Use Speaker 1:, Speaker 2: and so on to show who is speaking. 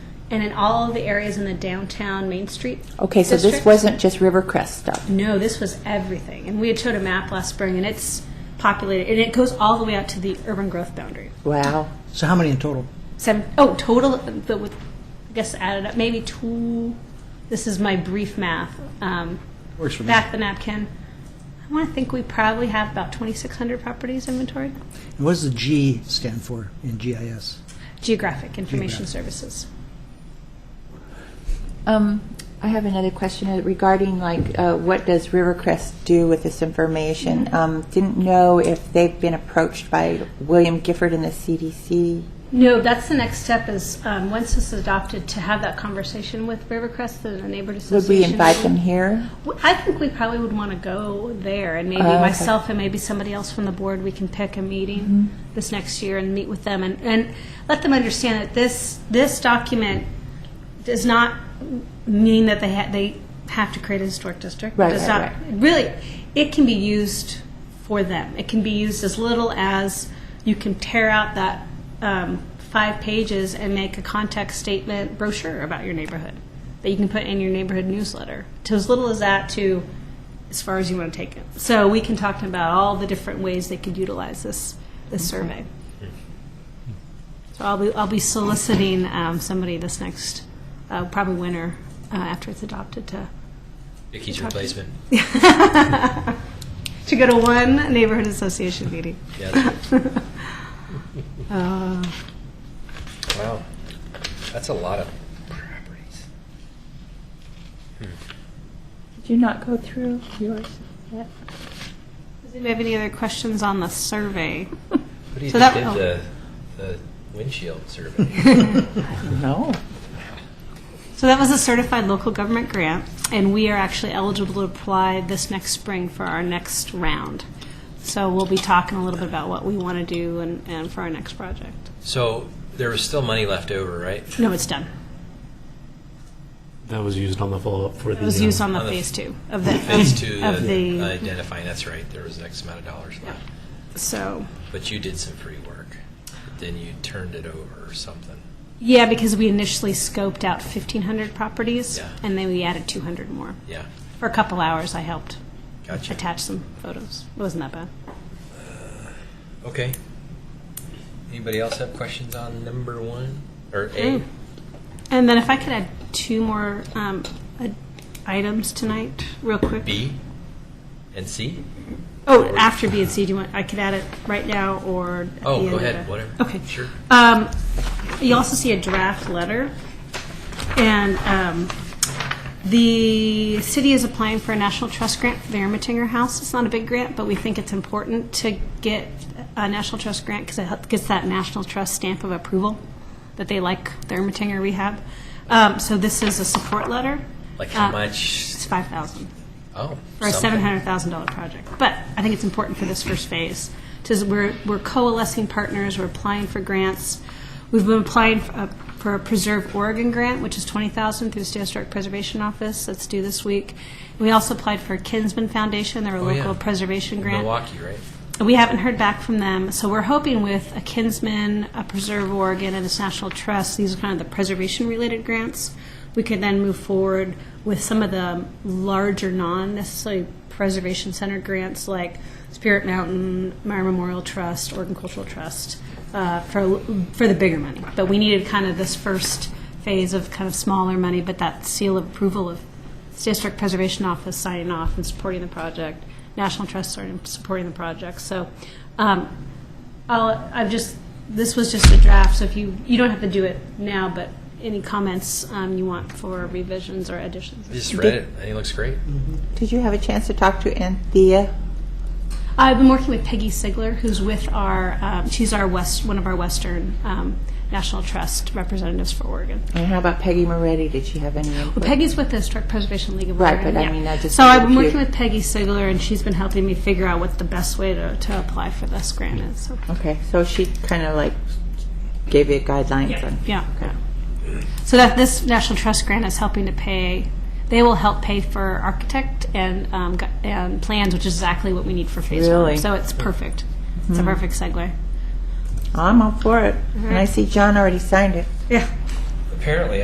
Speaker 1: and in all the areas in the downtown Main Street.
Speaker 2: Okay, so this
Speaker 1: district.
Speaker 2: wasn't just Rivercrest stuff.
Speaker 1: No, this was everything. And we had showed a map last spring, and it's populated, and it goes all the way out to the urban growth boundary.
Speaker 2: Wow.
Speaker 3: So how many in total?
Speaker 1: Seven, oh, total, the, with, I guess added up, maybe two, this is my brief math. Um,
Speaker 3: Works for me.
Speaker 1: Back the napkin. I want to think we probably have about 2,600 properties inventory.
Speaker 3: And what does the G stand for in GIS?
Speaker 1: Geographic Information
Speaker 3: Geographic.
Speaker 1: Services.
Speaker 2: Um, I have another question regarding like, uh, what does Rivercrest do with this information? Um, didn't know if they've been approached by William Gifford and the CDC.
Speaker 1: No, that's the next step is, um, once this is adopted, to have that conversation with Rivercrest, the neighborhood
Speaker 2: Would
Speaker 1: association.
Speaker 2: we invite them here?
Speaker 1: W- I think we probably would want to go there, and maybe
Speaker 2: Oh, okay.
Speaker 1: myself and maybe somebody else from the board, we can pick a
Speaker 2: Mm-hmm.
Speaker 1: meeting this next year and meet with them and, and let them understand that this, this document does not mean that they ha, they have to create a historic district.
Speaker 2: Right,
Speaker 1: Does not-
Speaker 2: right, right.
Speaker 1: Really, it can be used for them. It can be used as little as you can tear out that, um, five pages and make a context statement brochure about your neighborhood that you can put in your neighborhood newsletter. To as little as that to as far as you want to take it. So we can talk about all the different ways they could utilize this, this survey. So I'll be, I'll be soliciting um, somebody this next, uh, probably winter, uh, after it's adopted to,
Speaker 4: Vicky's replacement.
Speaker 1: to go to one neighborhood association meeting.
Speaker 4: Yeah.
Speaker 1: Uh,
Speaker 4: Wow, that's a lot of properties.
Speaker 2: Did you not go through yours yet?
Speaker 1: Does anybody have any other questions on the survey?
Speaker 4: What do you
Speaker 1: So
Speaker 4: think
Speaker 1: that-
Speaker 4: did the, the windshield survey?
Speaker 2: No.
Speaker 1: So that was a certified local government grant, and we are actually eligible to apply this next spring for our next round. So we'll be talking a little bit about what we want to do and, and for our next project.
Speaker 4: so there was still money left over, right?
Speaker 1: No, it's done.
Speaker 5: That was used on the follow-up for the.
Speaker 1: It was used on the
Speaker 4: On the
Speaker 1: phase two of the
Speaker 4: Phase two,
Speaker 1: of the-
Speaker 4: identifying. uh, That's right. There was X amount of dollars left,
Speaker 1: so
Speaker 4: but you did some free work. Then you turned it over or something.
Speaker 1: yeah because we initially scoped out 1500 properties
Speaker 4: Yeah.
Speaker 1: and then we added 200 more
Speaker 4: Yeah,
Speaker 1: for a couple hours i helped
Speaker 4: gotcha.
Speaker 1: attach some photos it wasn't that bad
Speaker 4: Okay. Anybody else have questions on number one or A?
Speaker 1: and then if i could add two more um, ad- items tonight real quick
Speaker 4: B and C?
Speaker 1: Oh, after B and C, do you want, I could add it right now or at
Speaker 4: Oh,
Speaker 1: the end
Speaker 4: go
Speaker 1: of
Speaker 4: ahead,
Speaker 1: the-
Speaker 4: whatever.
Speaker 1: Okay.
Speaker 4: Sure.
Speaker 1: Um, you also see a draft letter, and um, the city is applying for a national trust grant for the Ermitinger House. It's not a big grant, but we think it's important to get a national trust grant because it hel- gets that national trust stamp of approval that they like the Ermitinger rehab. Um, so this is a support letter.
Speaker 4: Like how
Speaker 1: Uh,
Speaker 4: much?
Speaker 1: It's five thousand
Speaker 4: Oh,
Speaker 1: for a
Speaker 4: something.
Speaker 1: seven hundred thousand dollar project. But I think it's important for this first phase. Because we're we're coalescing partners, we're applying for grants. We've been applying for a, for a Preserve Oregon grant, which is twenty thousand through the State Historic Preservation Office. That's due this week. We also applied for Kinsman Foundation, their
Speaker 4: Oh, yeah.
Speaker 1: local preservation grant.
Speaker 4: Milwaukee, right?
Speaker 1: We haven't heard back from them, so we're hoping with a Kinsman, a Preserve Oregon, and this National Trust, these are kind of the preservation-related grants, we could then move forward with some of the larger, non-necessarily preservation-centered grants like Spirit Mountain, Meyer Memorial Trust, Oregon Cultural Trust, uh, for, for the bigger money. But we needed kind of this first phase of kind of smaller money, but that seal of approval of District Preservation Office signing off and supporting the project, National Trust starting supporting the project. So um, I'll, I've just, this was just a draft, so if you, you don't have to do it now, but any comments um, you want for revisions or additions?
Speaker 4: I just read it, and it looks great.
Speaker 1: Mm.
Speaker 2: Did you have a chance to talk to Anthea?
Speaker 1: I've been working with Peggy Sigler, who's with our, um, she's our West, one of our Western um, National Trust representatives for Oregon.
Speaker 2: And how about Peggy Moretti? Did she have any input?
Speaker 1: Well, Peggy's with the Historic Preservation League of
Speaker 2: Right,
Speaker 1: Oregon.
Speaker 2: but I
Speaker 1: yeah.
Speaker 2: mean, I just
Speaker 1: So I've been
Speaker 2: wondered if
Speaker 1: working
Speaker 2: you-
Speaker 1: with Peggy Sigler, and she's been helping me figure out what the best way to, to apply for this grant is. So.
Speaker 2: Okay, so she kind of like gave you guidelines on.
Speaker 1: Yeah. So that this National Trust grant is helping to pay, they will help pay for architect and, um, gu- and plans, which is exactly what we need for phase one.
Speaker 2: Really? Mm-hmm.
Speaker 1: So it's perfect. It's a perfect segue.
Speaker 2: I'm all for it. And I see John already signed it.
Speaker 1: Yeah.
Speaker 4: Apparently,